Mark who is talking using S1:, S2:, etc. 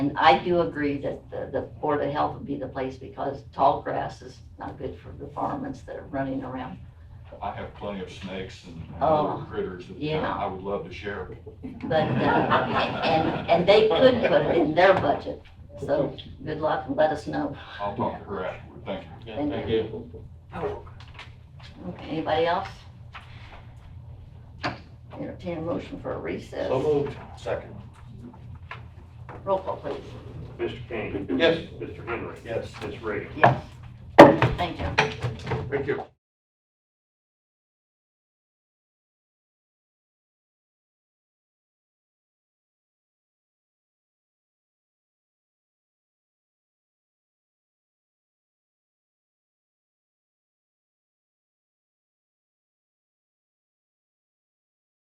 S1: And I do agree that the, the Board of Health would be the place because tall grass is not good for the varmints that are running around.
S2: I have plenty of snakes and and
S1: Oh,
S2: other critters that
S1: yeah.
S2: uh, I would love to share. with you.
S1: But, uh, and, and they could put it in their budget, so good luck and let us know.
S2: I'll talk to her afterward. Thank you.
S3: Yeah,
S1: Thank
S3: thank
S1: you.
S3: you.
S1: Okay, Anybody else? Entertain a motion for a
S3: So
S1: recess.
S3: moved. Second.
S1: Roll call, please.
S4: Mr. King.
S3: Yes.
S4: Mr. Henry.
S3: Yes.
S4: Ms. Reagan.
S1: Thank you.
S4: Thank you.